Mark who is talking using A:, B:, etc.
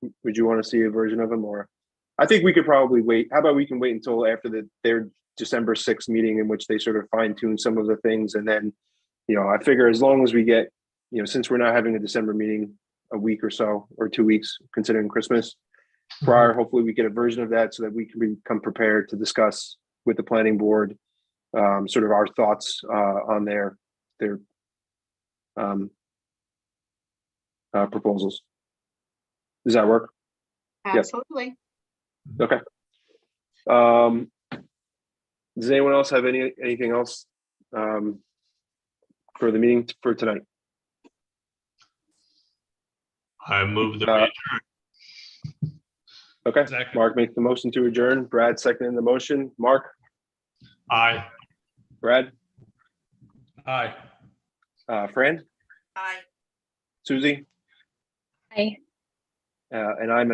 A: you would you want to see a version of him or I think we could probably wait. How about we can wait until after the, their December 6th meeting in which they sort of fine tune some of the things. And then, you know, I figure as long as we get, you know, since we're not having a December meeting a week or so, or two weeks, considering Christmas prior, hopefully we get a version of that so that we can become prepared to discuss with the planning board, um, sort of our thoughts, uh, on their, their, um, uh, proposals. Does that work? Yep.
B: Absolutely.
A: Um, does anyone else have any, anything else, um, for the meeting t- for tonight?
C: I move the.
A: Uh, Okay,
C: Second.
A: Mark makes the motion to adjourn. Brad seconding the motion. Mark,
C: Aye.
A: Brad,
C: Aye.
A: uh, Fran,
B: Aye.
A: Susie,
D: Aye.
A: uh, and I'm an